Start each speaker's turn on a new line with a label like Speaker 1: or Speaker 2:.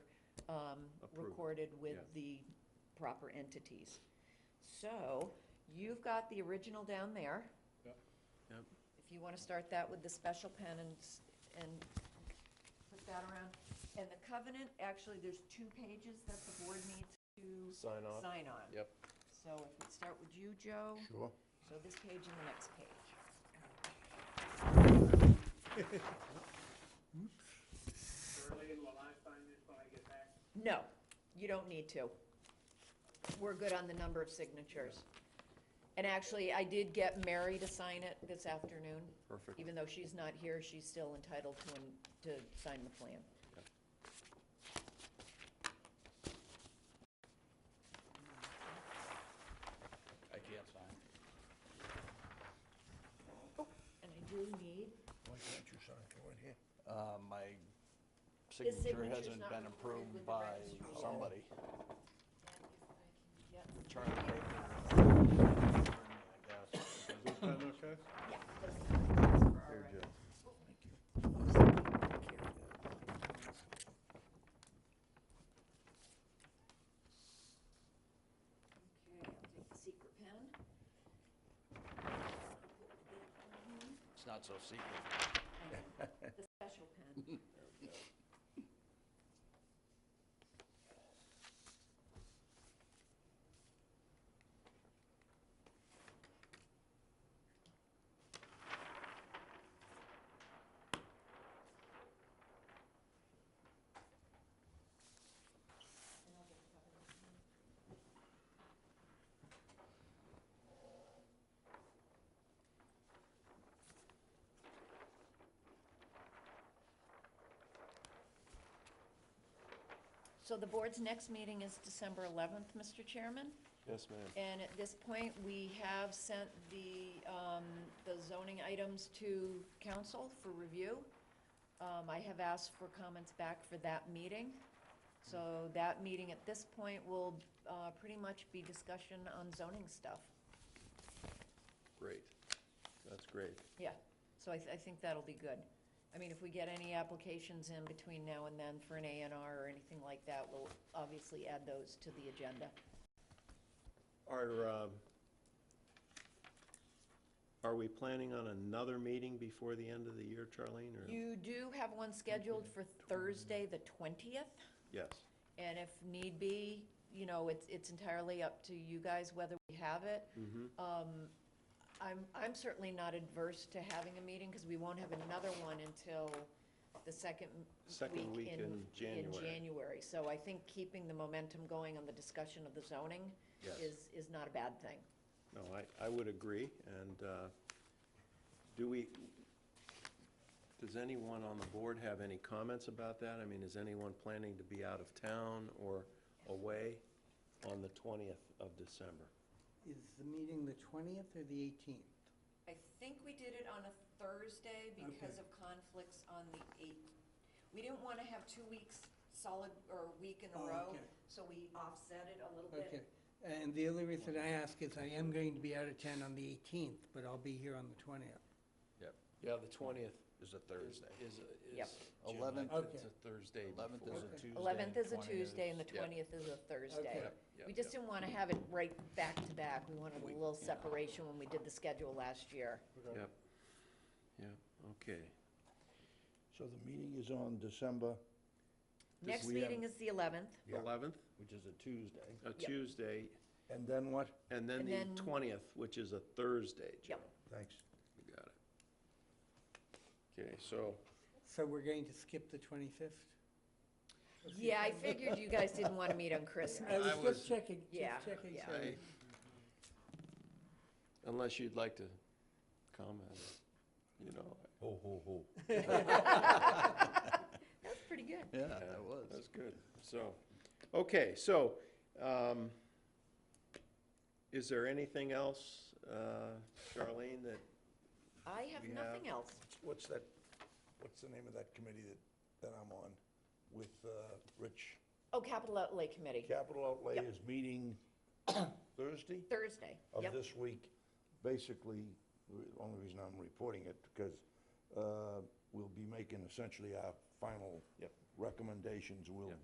Speaker 1: um,
Speaker 2: Approved,
Speaker 1: recorded with
Speaker 2: yeah.
Speaker 1: the proper entities. So you've got the original down there.
Speaker 3: Yep.
Speaker 2: Yep.
Speaker 1: If you want to start that with the special pen and, s- and put that around. And the covenant, actually, there's two pages that the board needs to
Speaker 2: Sign off.
Speaker 1: sign on.
Speaker 2: Yep.
Speaker 1: So if we start with you, Joe,
Speaker 4: Sure.
Speaker 1: so this page and the next page.
Speaker 5: Shirley, will I sign this when I get back?
Speaker 1: No, you don't need to. We're good on the number of signatures. And actually, I did get Mary to sign it this afternoon.
Speaker 2: Perfect.
Speaker 1: Even though she's not here, she's still entitled to, an- to sign the plan.
Speaker 3: I can't sign.
Speaker 1: And I do need,
Speaker 4: Why can't you sign it right here?
Speaker 3: Uh, my
Speaker 1: His
Speaker 3: signature
Speaker 1: signature's
Speaker 3: hasn't
Speaker 1: not
Speaker 3: been
Speaker 1: recorded with
Speaker 3: approved
Speaker 1: the
Speaker 3: by
Speaker 1: registry.
Speaker 3: somebody.
Speaker 1: yep,
Speaker 3: Charlie
Speaker 1: Oh.
Speaker 3: Baker. I guess.
Speaker 2: Is that okay?
Speaker 1: yeah. those are the plans for our
Speaker 2: Here,
Speaker 1: record.
Speaker 2: Joe.
Speaker 1: Okay, I'll take the secret pen.
Speaker 3: It's not so secret.
Speaker 1: The special pen. So the board's next meeting is December 11th, Mr. Chairman?
Speaker 2: Yes, ma'am.
Speaker 1: And at this point, we have sent the, um, the zoning items to council for review. Um, I have asked for comments back for that meeting. So that meeting at this point will, uh, pretty much be discussion on zoning stuff.
Speaker 2: Great. That's great.
Speaker 1: Yeah, so I, th- I think that'll be good. I mean, if we get any applications in between now and then for an A and R or anything like that, we'll obviously add those to the agenda.
Speaker 2: Are, um, are we planning on another meeting before the end of the year, Charlene, or?
Speaker 1: You do have one scheduled for Thursday, the twentieth?
Speaker 2: Yes.
Speaker 1: And if need be, you know, it's, it's entirely up to you guys whether we have it.
Speaker 2: Mm-hmm.
Speaker 1: Um, I'm, I'm certainly not adverse to having a meeting, because we won't have another one until the second
Speaker 2: Second
Speaker 1: week
Speaker 2: week
Speaker 1: in.
Speaker 2: in January.
Speaker 1: January. so I think keeping the momentum going on the discussion of the zoning
Speaker 2: Yes.
Speaker 1: is, is not a bad thing.
Speaker 2: No, I, I would agree, and, uh, do we, does anyone on the board have any comments about that? I mean, is anyone planning to be out of town or away on the twentieth of December?
Speaker 6: Is the meeting the twentieth or the eighteenth?
Speaker 1: I think we did it on a Thursday because of conflicts on the eighth. We didn't want to have two weeks solid, or a week in a
Speaker 6: Oh,
Speaker 1: row,
Speaker 6: okay.
Speaker 1: so we offset it a little
Speaker 6: Okay,
Speaker 1: bit.
Speaker 6: and the only reason I ask is I am going to be out of town on the eighteenth, but I'll be here on the twentieth.
Speaker 2: Yeah, the twentieth
Speaker 3: It's a Thursday.
Speaker 2: is,
Speaker 1: Yep.
Speaker 3: June 11th.
Speaker 6: Okay.
Speaker 2: It's a Thursday
Speaker 3: Eleventh is
Speaker 2: before.
Speaker 3: a
Speaker 6: Okay.
Speaker 3: Tuesday.
Speaker 1: Eleventh is a
Speaker 3: 20th
Speaker 1: Tuesday and the
Speaker 2: Yep.
Speaker 1: twentieth is a Thursday.
Speaker 6: Okay.
Speaker 2: Yep, yep,
Speaker 1: We just
Speaker 2: yep.
Speaker 1: didn't want to have it right back to back. We wanted a little separation when we did the schedule last year.
Speaker 2: Yep. Yep, okay.
Speaker 4: So the meeting is on December,
Speaker 1: Next
Speaker 4: we have-
Speaker 1: meeth is the eleventh,
Speaker 4: Yeah.
Speaker 2: Eleventh,
Speaker 4: which is a Tuesday,
Speaker 2: a Tuesday,
Speaker 4: and then what?
Speaker 2: and then
Speaker 1: And then-
Speaker 2: the twentieth, which is a Thursday, Joe.
Speaker 1: Yep.
Speaker 4: Thanks.
Speaker 2: You got it. Okay, so,
Speaker 6: So we're going to skip the twenty-fifth?
Speaker 1: yeah, I figured you guys didn't want to meet on Christmas.
Speaker 6: I
Speaker 2: I
Speaker 6: was
Speaker 2: was-
Speaker 6: just checking,
Speaker 1: Yeah,
Speaker 6: just checking.
Speaker 1: yeah.
Speaker 6: sorry.
Speaker 2: unless you'd like to comment, you know.
Speaker 4: Ho, ho, ho.
Speaker 1: That's pretty good.
Speaker 3: Yeah,
Speaker 2: Yeah,
Speaker 3: that was.
Speaker 2: That's good. So, okay, so, um, is there anything else, uh, Charlene, that,
Speaker 1: I have
Speaker 2: We have-
Speaker 1: nothing else.
Speaker 4: What's that, what's the name of that committee that, that I'm on with, uh, Rich?
Speaker 1: Oh, Capital Outlay Committee,
Speaker 4: Capital Outlay
Speaker 1: Yep.
Speaker 4: is meeting Thursday
Speaker 1: Thursday.
Speaker 4: of
Speaker 1: Yep.
Speaker 4: this week. Basically, the only reason I'm reporting it, because, uh, we'll be making essentially our final
Speaker 2: Yep.
Speaker 4: recommendations. We'll